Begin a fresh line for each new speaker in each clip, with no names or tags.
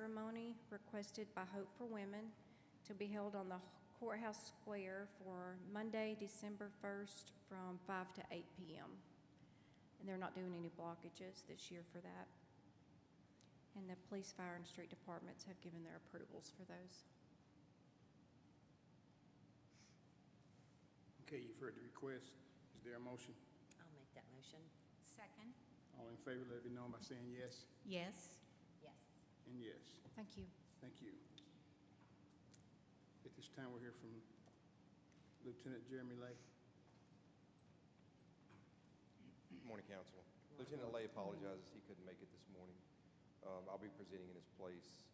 ceremony requested by Hope for Women to be held on the courthouse square for Monday, December 1st, from 5 to 8 p.m. And they're not doing any blockages this year for that. And the police, fire, and street departments have given their approvals for those.
Okay, you've heard the request. Is there a motion?
I'll make that motion.
Second.
All in favor, let it be known by saying yes
Yes.
Yes.
and yes.
Thank you.
Thank you. At this time, we'll hear from Lieutenant Jeremy Lake.
Morning, Council. Lieutenant Lay apologizes he couldn't make it this morning. Um, I'll be presenting in his place.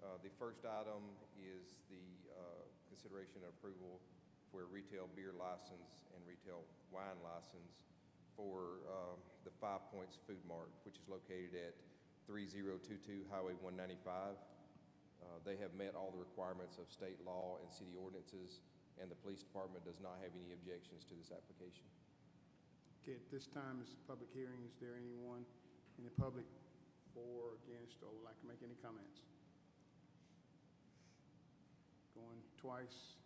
Uh, The first item is the uh, consideration and approval for a retail beer license and retail wine license for um, the Five Points Food Mart, which is located at 3022 Highway 195. Uh, They have met all the requirements of state law and city ordinances, and the police department does not have any objections to this application.
Okay, at this time, it's a public hearing. Is there anyone in the public for, or against, or would like to make any comments? Going twice,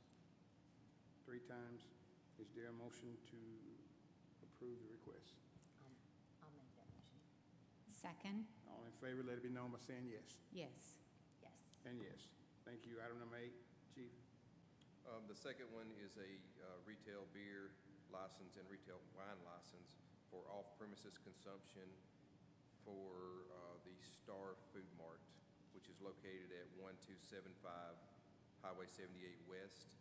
three times. Is there a motion to approve the request?
I'll, Um, I'll make that motion.
Second.
All in favor, let it be known by saying yes.
Yes.
Yes.
And yes. Thank you. Item number eight, Chief.
Um, The second one is a uh, retail beer license and retail wine license for off-premises consumption for uh, the Star Food Mart, which is located at 1275 Highway 78 West.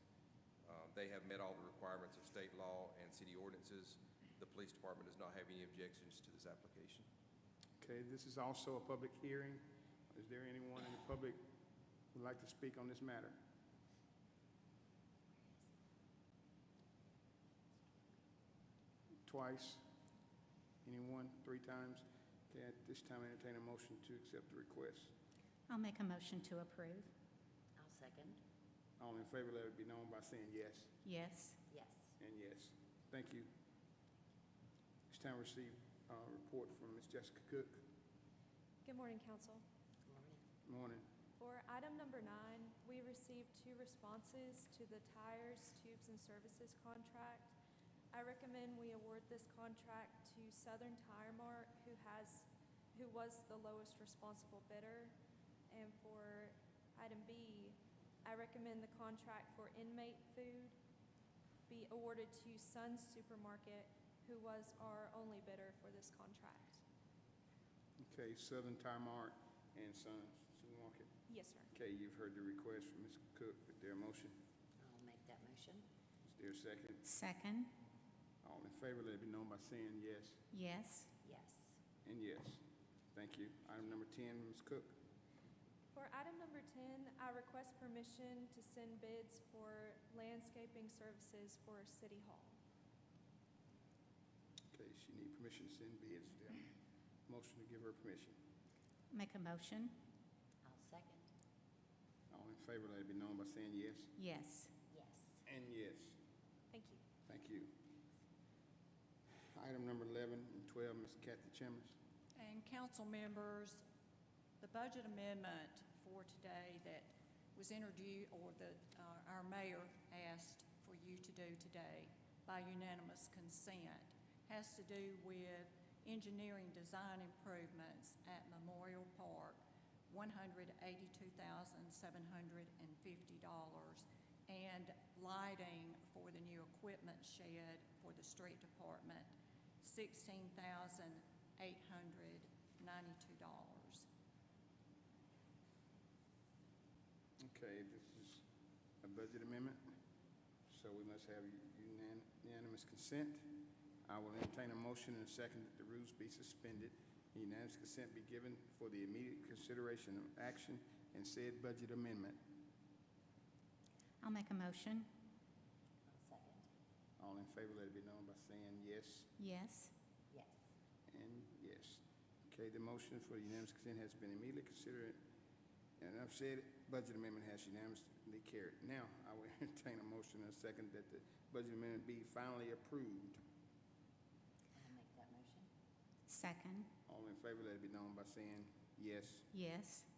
Um, They have met all the requirements of state law and city ordinances. The police department does not have any objections to this application.
Okay, this is also a public hearing. Is there anyone in the public who'd like to speak on this matter? Twice? Anyone? Three times? Okay, at this time, entertain a motion to accept the request.
I'll make a motion to approve.
I'll second.
All in favor, let it be known by saying yes
Yes.
Yes.
and yes. Thank you. This time, receive a report from Ms. Jessica Cook.
Good morning, council.
Good morning.
Morning.
For item number nine, we received two responses to the tires, tubes, and services contract. I recommend we award this contract to Southern Tire Mart, who has, who was the lowest responsible bidder. And for item B, I recommend the contract for inmate food be awarded to Sun Supermarket, who was our only bidder for this contract.
Okay, Southern Tire Mart and Sons Supermarket.
Yes, sir.
Okay, you've heard the request from Ms. Cook. Is there a motion?
I'll make that motion.
Is there a second?
Second.
All in favor, let it be known by saying yes
Yes.
Yes.
and yes. Thank you. Item number 10, Ms. Cook.
For item number 10, I request permission to send bids for landscaping services for City Hall.
Okay, she need permission to send bids. Is there a motion to give her permission?
Make a motion.
I'll second.
All in favor, let it be known by saying yes
Yes.
Yes.
and yes.
Thank you.
Thank you. Item number 11 and 12, Ms. Kathy Chambers.
And council members, the budget amendment for today that was introduced, or that uh, our mayor asked for you to do today by unanimous consent, has to do with engineering design improvements at Memorial Park, $182,750, and lighting for the new equipment shed for the street department, sixteen thousand eight hundred ninety-two dollars.
Okay, this is a budget amendment, so we must have unan- unanimous consent. I will entertain a motion and a second that the rules be suspended, and unanimous consent be given for the immediate consideration of action and said budget amendment.
I'll make a motion.
I'll second.
All in favor, let it be known by saying yes
Yes.
Yes.
and yes. Okay, the motion for unanimous consent has been immediately considered, and I've said it, budget amendment has unanimously carried. Now, I will entertain a motion and a second that the budget amendment be finally approved.
I'll make that motion.
Second.
All in favor, let it be known by saying yes
Yes.